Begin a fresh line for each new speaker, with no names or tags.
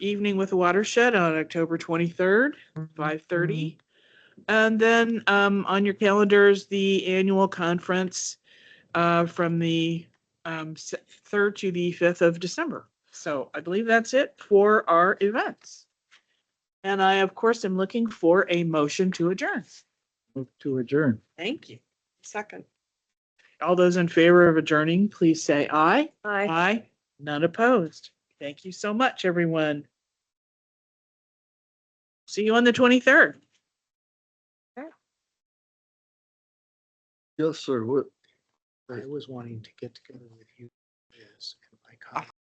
Evening with Watershed on October twenty-third, five thirty. And then um, on your calendars, the annual conference uh, from the um, s- third to the fifth of December. So I believe that's it for our events. And I, of course, am looking for a motion to adjourn.
Move to adjourn.
Thank you. Second. All those in favor of adjourning, please say aye.
Hi.
Aye. None opposed. Thank you so much, everyone. See you on the twenty-third.
Yes, sir. What?
I was wanting to get together with you. Liz, and my colleagues.